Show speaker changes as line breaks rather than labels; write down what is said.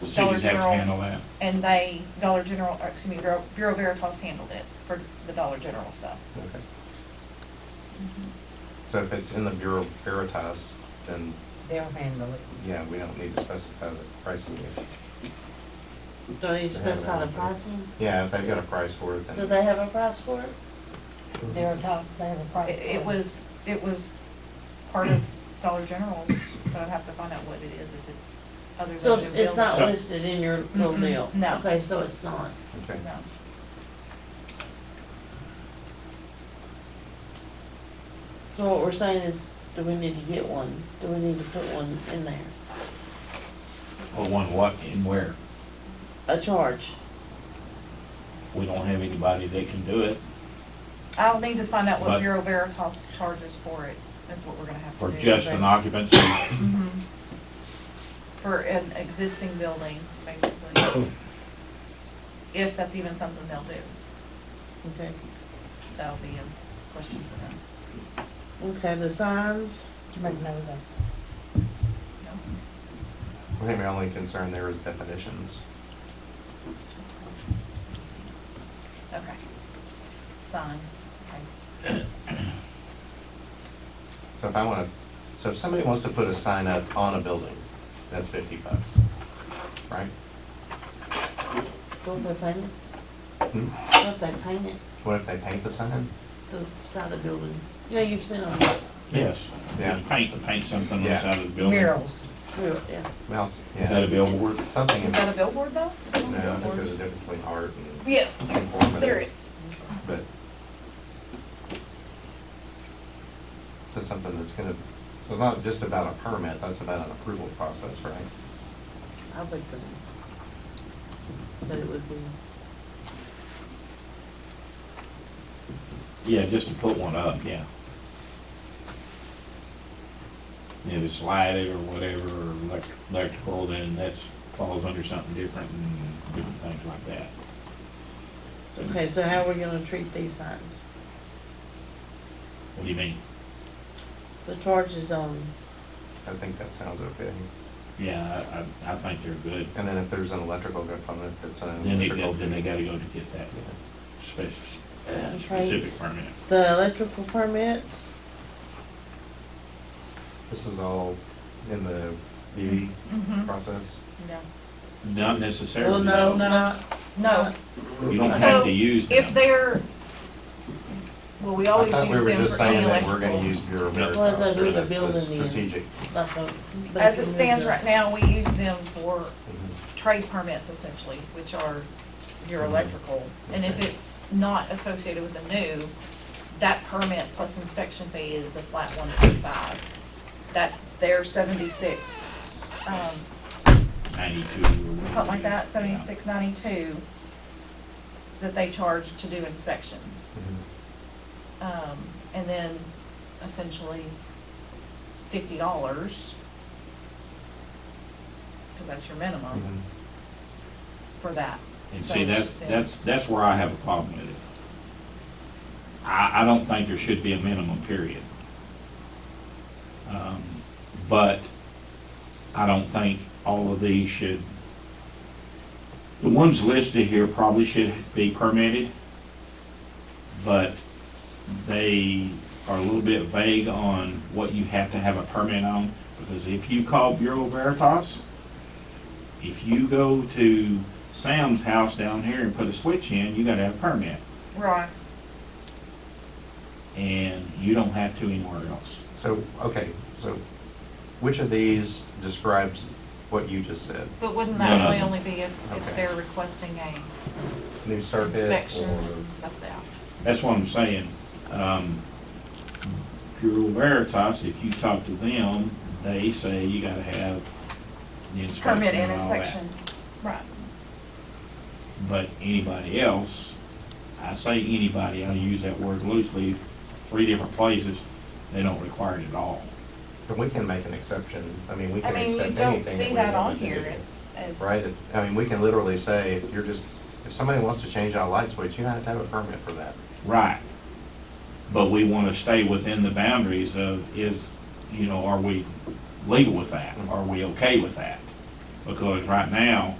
Dollar
cities have to handle
General,
that.
and they, Dollar General, or excuse me, Bureau Bureau Veritas handled it for the Dollar General stuff.
Okay.
Mm-hmm.
So if it's in the Bureau of Veritas, then,
They'll handle it.
yeah, we don't need to specify the pricing. If-
Do they
that
specify
out
the
there.
pricing? Mm-hmm.
Yeah, if they've got a price for it,
Do
then,
they have a price for it? They're tossed, they have a price
It,
for it.
it was, it was part of Dollar General's, so I'd have to find out what it is, if it's other than.
So
the
it's not
So-
building.
listed in your little
Mm-mm,
deal?
no.
Okay, so it's not.
okay.
No.
So what we're saying is, do we need to get one? Do we need to put one in there?
Well, one what and where?
A charge?
We don't have anybody that can do it,
I'll need to find out what
But-
Bureau Veritas charges for it, that's what we're gonna have to
for
do.
just
but-
an occupancy.
Mhm. For an existing building, basically. If that's even something they'll do,
Okay.
that'll be a question for them.
Okay, the signs? Magnolia.
No?
I think my only concern there is definitions.
Okay. Signs, okay.
So if I wanna, so if somebody wants to put a sign up on a building, that's fifty bucks, right?
Don't they paint it?
Hmm?
Don't they paint it,
What if they paint the sign?
the side of the building? You know, you've seen them,
Yes.
Yeah.
Just paint, paint something on the
Yeah.
side of the building. Is
real- yeah.
Well, it's-
that a
yeah,
billboard?
something,
Is
in-
that a billboard though?
no, I think there's a difference between art and
Yes,
informative.
there is.
But that's something that's gonna, so it's not just about a permit, that's about an approval process, right?
I would think that it would be,
Yeah, just to put one up, yeah. If it's lighted or whatever, or elect- electrical, then that's, falls under something different and different things like that.
okay, so how are we gonna treat these signs?
What do you mean?
The charge is on,
I think that sounds okay.
Yeah, I, I, I think they're good.
And then if there's an electrical component, that's an
Then they,
electrical.
then they gotta go to get that
Yeah.
spec-
Okay.
uh, specific permit.
the electrical permits,
This is all in the DD
Mm-hmm,
process?
no.
Not
well,
necessarily.
no, not,
No,
You don't have
So,
to use them.
if they're, well, we
I
always use
thought we were
them
just
for any
saying that we're
electrical.
gonna use Bureau of
No.
Veritas.
Well,
the-
but
the
it's
building in.
Strategic.
like a. but
As
if
it
you
stands
moved
right now, we use them for
Mhm.
trade permits essentially, which are
Mm-hmm.
your electrical. And if
Okay.
it's not associated with the new, that permit plus inspection fee is the flat one thirty-five. That's their seventy-six, um,
Ninety-two or whatever.
something like that,
Yeah.
seventy-six ninety-two, that they charge to do inspections.
Mhm.
Hmm.
Um, and then essentially fifty dollars, because that's your minimum
Mhm.
for that.
Mm-hmm. And
So
see,
it's
that's,
just been-
that's, that's where I have a problem with it. I, I don't think there should be a minimum period. Um, But I don't think all of these should, the ones listed here probably should be permitted, but they are a little bit vague on what you have to have a permit on, because if you call Bureau Veritas, if you go to Sam's house down here and put a switch in, you gotta have a permit,
Right.
and you don't have to anywhere else.
So, okay, so which of these describes what you just said?
But wouldn't
No,
that
no.
really only be if, if
Okay.
they're requesting a
New circuit
inspection
or?
and stuff like that?
That's what I'm saying. Um, Bureau Veritas, if you talk to them, they say you gotta have the inspection
Permit and
and all that.
inspection, right.
But anybody else, I say anybody, I use that word loosely, three different places, they don't require it at all.
But we can make an exception, I mean, we
I
can
mean, you
accept anything.
don't
that
see
we
that
want
on
to do.
here as, as.
Right, If- I mean, we can literally say, if you're just, if somebody wants to change out a light switch, you have to have a permit for that.
Right. But we want to stay within the boundaries of is, you know, are we legal with that? Are we okay with that? Because right now,